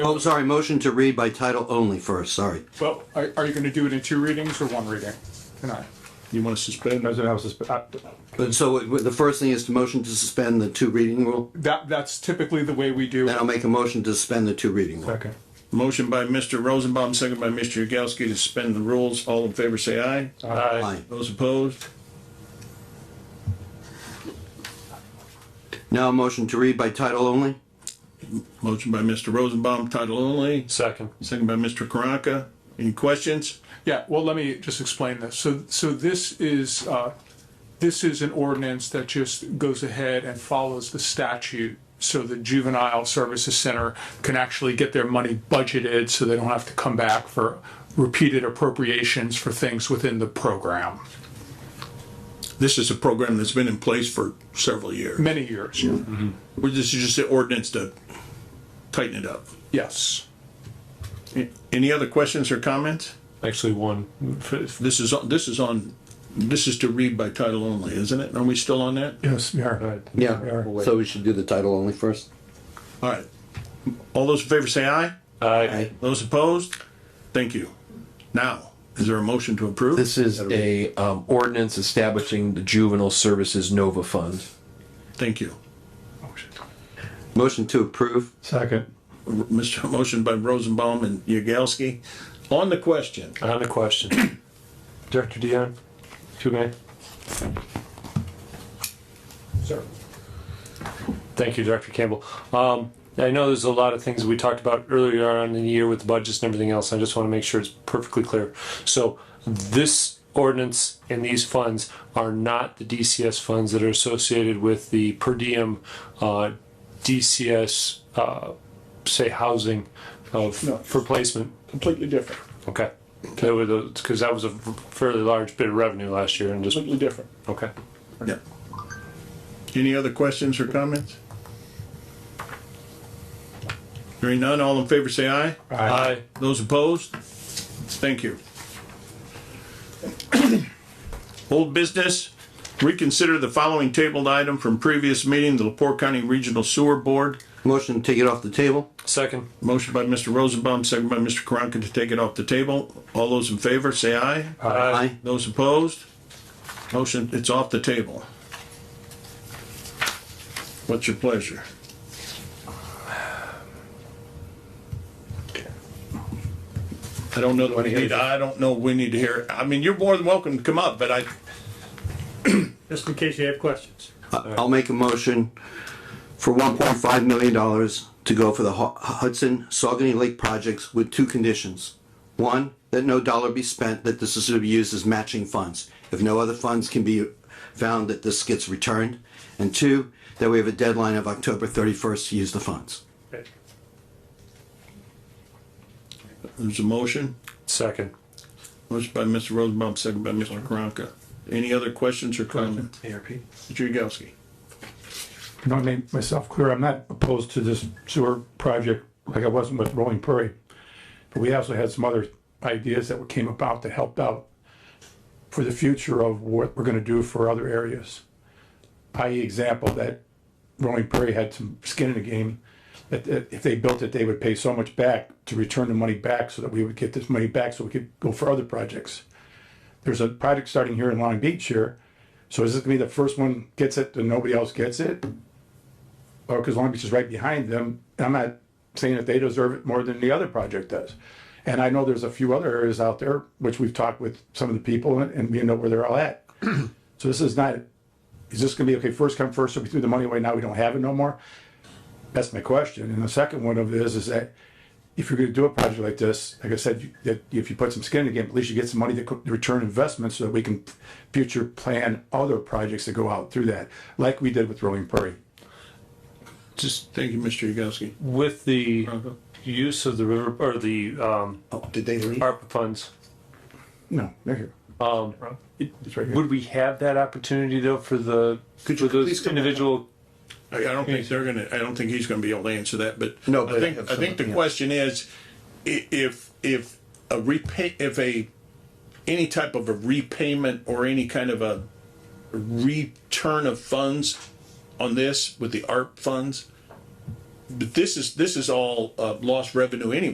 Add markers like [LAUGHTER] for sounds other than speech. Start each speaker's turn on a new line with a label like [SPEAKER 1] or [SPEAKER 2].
[SPEAKER 1] Oh, sorry, motion to read by title only first, sorry.
[SPEAKER 2] Well, are, are you gonna do it in two readings or one reading tonight?
[SPEAKER 3] You want to suspend?
[SPEAKER 4] President House is, uh,
[SPEAKER 1] But so it- the first thing is to motion to suspend the two reading rule,
[SPEAKER 2] That, that's typically the way we do
[SPEAKER 1] then I'll
[SPEAKER 2] it.
[SPEAKER 1] make a motion to suspend the two reading rule.
[SPEAKER 4] second.
[SPEAKER 3] Motion by Mr. Rosenbaum, second by Mr. Yagowski to suspend the rules. All in favor, say aye.
[SPEAKER 2] Uh,
[SPEAKER 1] Aye.
[SPEAKER 3] Those opposed?
[SPEAKER 1] Now a motion to read by title only?
[SPEAKER 3] Motion by Mr. Rosenbaum, title only,
[SPEAKER 5] Second.
[SPEAKER 3] second by Mr. Karanka. Any questions?
[SPEAKER 2] Yeah, well, let me just explain this. So, so this is, uh, this is an ordinance that just goes ahead and follows the statute. So the juvenile services center can actually get their money budgeted so they don't have to come back for repeated appropriations for things within the program.
[SPEAKER 3] This is a program that's been in place for several years.
[SPEAKER 2] Many years,
[SPEAKER 3] We're- This is just an ordinance to tighten it up.
[SPEAKER 2] yes.
[SPEAKER 3] Any other questions or comments?
[SPEAKER 5] Actually, one. F-
[SPEAKER 3] This is, on- this is on, this is to read by title only, isn't it? Are we still on that?
[SPEAKER 2] Yes, we are.
[SPEAKER 5] Right.
[SPEAKER 1] Yeah, so we should do the title only first?
[SPEAKER 3] All right. All those in favor say aye.
[SPEAKER 5] Aye.
[SPEAKER 3] Those opposed? Thank you. Now, is there a motion to approve?
[SPEAKER 6] This is a um, ordinance establishing the Juvenile Services Nova Fund.
[SPEAKER 3] Thank you. [LAUGHS]
[SPEAKER 2] Oh,
[SPEAKER 1] Motion to approve?
[SPEAKER 4] Second.
[SPEAKER 3] Mr. Motion by Rosenbaum and Yagowski. On the question,
[SPEAKER 5] On the question. [COUGHS] Director Dion, two may.
[SPEAKER 2] Sir.
[SPEAKER 5] Thank you, Director Campbell. Um, I know there's a lot of things we talked about earlier on in the year with the budgets and everything else. I just want to make sure it's perfectly clear. So this ordinance and these funds are not the DCS funds that are associated with the per diem uh, DCS, uh, say, housing of for placement.
[SPEAKER 3] completely different,
[SPEAKER 5] Okay. That was because that was a fairly large bit of revenue last year and just,
[SPEAKER 3] completely different.
[SPEAKER 5] okay.
[SPEAKER 3] Yeah. Any other questions or comments? Hearing none, all in favor say aye.
[SPEAKER 5] Aye.
[SPEAKER 3] Those opposed? Thank you. [COUGHS] Old business, reconsider the following tabled item from previous meeting, the Lepore County Regional Sewer Board.
[SPEAKER 1] Motion to take it off the table?
[SPEAKER 5] Second.
[SPEAKER 3] Motion by Mr. Rosenbaum, second by Mr. Karanka to take it off the table. All those in favor, say aye.
[SPEAKER 1] Aye.
[SPEAKER 3] Those opposed? Motion, it's off the table. What's your pleasure? I don't know, that we need- I don't know, we need to hear, I mean, you're more than welcome to come up, but I,
[SPEAKER 7] just in case you have questions.
[SPEAKER 1] I- I'll make a motion for one point five million dollars to go for the Hu- Hudson Saugony Lake projects with two conditions. One, that no dollar be spent, that this is to be used as matching funds. If no other funds can be found, that this gets returned. And two, that we have a deadline of October thirty-first to use the funds.
[SPEAKER 3] there's a motion.
[SPEAKER 5] Second.
[SPEAKER 3] Motion by Mr. Rosenbaum, second by Mr. Karanka. Any other questions or comments? Mr. Yagowski.
[SPEAKER 4] Not make myself clear, I'm not opposed to this sewer project like I wasn't with Rolling Prairie. But we also had some other ideas that came about that helped out for the future of what we're gonna do for other areas. I.e. example that Rolling Prairie had some skin in the game, that, that if they built it, they would pay so much back to return the money back so that we would get this money back so we could go for other projects. There's a project starting here in Long Beach here, so is this gonna be the first one gets it and nobody else gets it? or because Oh, Long Beach is right behind them. And I'm not saying that they deserve it more than the other project does. And I know there's a few other areas out there, which we've talked with some of the people and, and we know where they're all at. [CLEARS THROAT] So this is not, is this gonna be, okay, first come first, so we threw the money away, now we don't have it no more? That's my question. And the second one of this is that if you're gonna do a project like this, like I said, you- that if you put some skin in the game, at least you get some money to co- return investment so that we can future plan other projects that go out through that, like we did with Rolling Prairie.
[SPEAKER 3] Just, thank you, Mr. Yagowski.
[SPEAKER 5] With the use of the river, or the, um,
[SPEAKER 1] Oh, did they leave?
[SPEAKER 5] ARPA funds,
[SPEAKER 4] No, they're here. Um. It's right here.
[SPEAKER 5] would we have that opportunity though for the, for those individual?
[SPEAKER 3] I I don't think they're gonna, I don't think he's gonna be able to answer that, but.
[SPEAKER 1] No,
[SPEAKER 3] I
[SPEAKER 1] but
[SPEAKER 3] think,
[SPEAKER 1] have
[SPEAKER 3] I think
[SPEAKER 1] some-
[SPEAKER 3] the
[SPEAKER 1] yeah.
[SPEAKER 3] question is, i- if, if a repay, if a, any type of a repayment or any kind of a return of funds on this with the ARP funds, but this is, this is all, uh, lost revenue anyway.